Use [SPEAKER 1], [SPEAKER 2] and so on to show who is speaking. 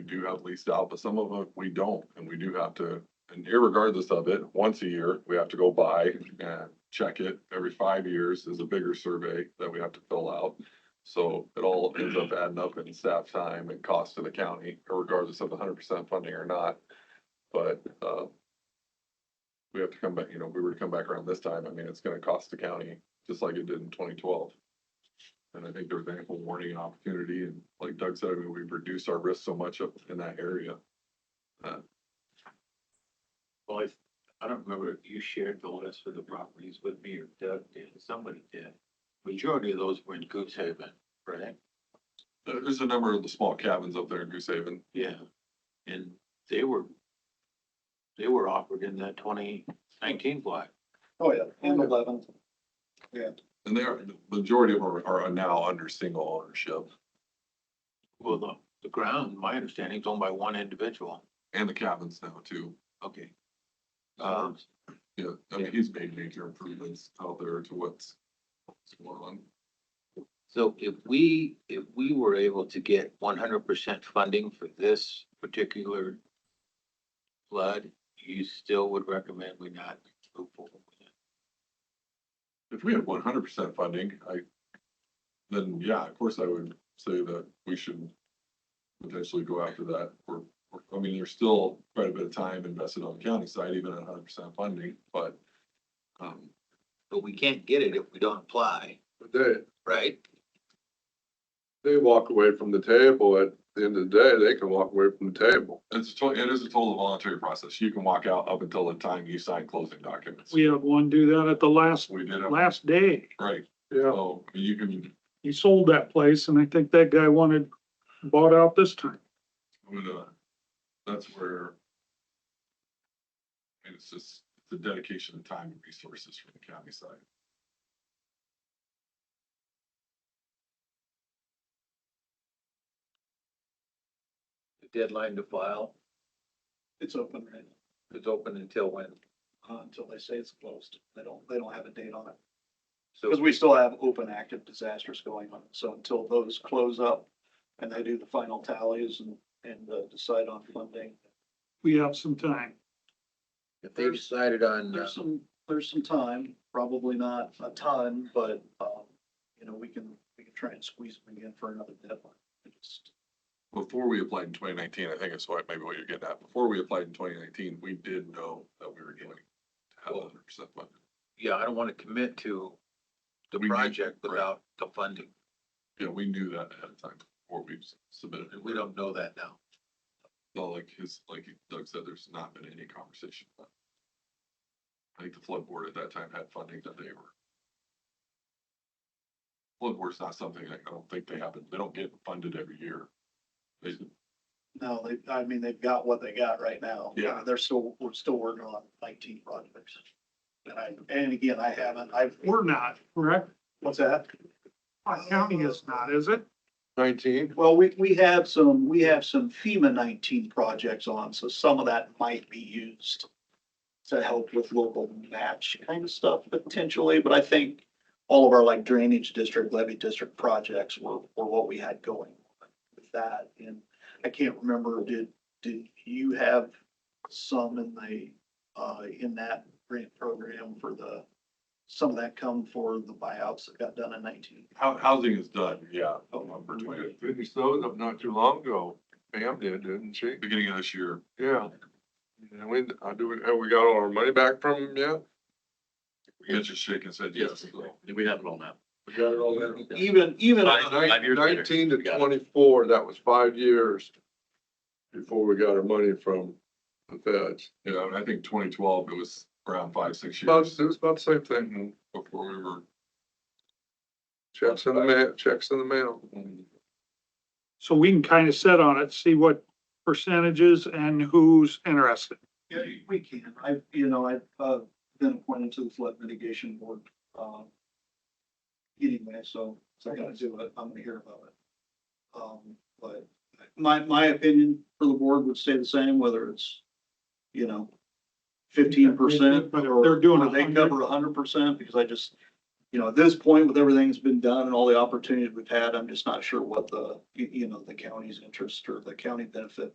[SPEAKER 1] we do have leased out, but some of them we don't, and we do have to, and irregardless of it, once a year, we have to go by and check it. Every five years is a bigger survey that we have to fill out. So it all ends up adding up in staff time and cost to the county, regardless of hundred percent funding or not. But, uh, we have to come back, you know, if we were to come back around this time, I mean, it's gonna cost the county, just like it did in twenty twelve. And I think there was ample warning and opportunity, and like Doug said, I mean, we've reduced our risk so much up in that area.
[SPEAKER 2] Well, I, I don't remember if you shared the list of the properties with me or Doug did, somebody did. Majority of those were in Goose Haven, right?
[SPEAKER 1] There- There's a number of the small cabins up there in Goose Haven.
[SPEAKER 2] Yeah. And they were, they were offered in that twenty nineteen block.
[SPEAKER 3] Oh, yeah, and eleven.
[SPEAKER 1] And they are, the majority of them are- are now under single ownership,
[SPEAKER 2] Well, the, the ground, my understanding, is owned by one individual.
[SPEAKER 1] and the cabins now too.
[SPEAKER 2] Okay. Um,
[SPEAKER 1] Yeah, I mean, he's made major improvements out there to what's what's going on.
[SPEAKER 2] So if we, if we were able to get one hundred percent funding for this particular flood, you still would recommend we not move forward with it?
[SPEAKER 1] If we had one hundred percent funding, I, then yeah, of course I would say that we should potentially go after that. We're, we're- I mean, there's still quite a bit of time invested on the county side, even at hundred percent funding, but um,
[SPEAKER 2] But we can't get it if we don't apply,
[SPEAKER 4] But They,
[SPEAKER 2] right?
[SPEAKER 4] they walk away from the table at the end of the day, they can walk away from the table.
[SPEAKER 1] it's a, to- it is a total voluntary process. You can walk out up until the time you sign closing documents.
[SPEAKER 5] We had one do that at the last,
[SPEAKER 1] We did it,
[SPEAKER 5] last day.
[SPEAKER 1] right,
[SPEAKER 4] Yeah.
[SPEAKER 1] so you can,
[SPEAKER 5] He sold that place and I think that guy wanted, bought out this time.
[SPEAKER 1] I'm gonna, that's where and it's just the dedication of time and resources from the county side.
[SPEAKER 2] The deadline to file
[SPEAKER 3] It's open right
[SPEAKER 2] is open until when?
[SPEAKER 3] now, uh, until they say it's closed. They don't, they don't have a date on it.
[SPEAKER 2] So
[SPEAKER 3] Because we still have open active disasters going on. So until those close up and they do the final tallies and, and uh, decide on funding,
[SPEAKER 5] We have some time.
[SPEAKER 2] if they decided on, uh,
[SPEAKER 3] there's some, there's some time, probably not a ton, but, um, you know, we can, we can try and squeeze them again for another deadline. It just-
[SPEAKER 1] before we applied in twenty nineteen, I think that's what, maybe what you're getting at, before we applied in twenty nineteen, we did know that we were going to have hundred percent funding.
[SPEAKER 2] yeah, I don't want to commit to the
[SPEAKER 1] We need-
[SPEAKER 2] project without the funding.
[SPEAKER 1] Yeah, we knew that ahead of time before we submitted
[SPEAKER 2] and
[SPEAKER 1] it.
[SPEAKER 2] We don't know that now.
[SPEAKER 1] So like his, like Doug said, there's not been any conversation. about it. I think the flood board at that time had funding that they were. Flood board's not something, that I don't think they happen, they don't get funded every year. They,
[SPEAKER 3] No, they, I mean, they've got what they got right now.
[SPEAKER 1] Yeah.
[SPEAKER 3] They're still, we're still working on nineteen projects. And I, and again, I haven't, I've,
[SPEAKER 5] We're not, correct?
[SPEAKER 3] what's that?
[SPEAKER 5] Our county is not, is it?
[SPEAKER 4] Nineteen,
[SPEAKER 3] Well, we, we have some, we have some FEMA nineteen projects on, so some of that might be used to help with local match kind of stuff potentially, but I think all of our like drainage district, levy district projects were, were what we had going with that. And I can't remember, did, did you have some in the, uh, in that grant program for the, some of that come for the buyouts that got done in nineteen?
[SPEAKER 1] hou- housing is done, yeah. Number twenty,
[SPEAKER 4] finished those up not too long ago. Pam did, didn't she?
[SPEAKER 1] beginning of this year,
[SPEAKER 4] Yeah. And we, I do, have we got all our money back from them yet?
[SPEAKER 1] Mitch just shaking his head yes. so.
[SPEAKER 6] We have it all now.
[SPEAKER 4] We got it all in.
[SPEAKER 3] Even, even.
[SPEAKER 6] Five- five years later,
[SPEAKER 4] Nineteen to
[SPEAKER 6] we got it.
[SPEAKER 4] twenty-four, that was five years before we got our money from the feds.
[SPEAKER 1] You know, and I think twenty twelve, it was around five, six
[SPEAKER 4] About,
[SPEAKER 1] years
[SPEAKER 4] it was about the same thing.
[SPEAKER 1] before we were.
[SPEAKER 4] Checks in the mail, checks in the mail.
[SPEAKER 6] Mm-hmm.
[SPEAKER 5] So we can kind of set on it, see what percentages and who's interested.
[SPEAKER 3] Yeah, we can. I, you know, I've, uh, been appointed to the flood mitigation board, um, anyway, so, so I gotta do it. I'm gonna hear about it. Um, but my, my opinion for the board would stay the same, whether it's, you know, fifteen percent.
[SPEAKER 5] But if they're doing
[SPEAKER 3] They
[SPEAKER 5] 100.
[SPEAKER 3] cover hundred percent, because I just, you know, at this point, with everything that's been done and all the opportunities we've had, I'm just not sure what the, you, you know, the county's interest or the county benefit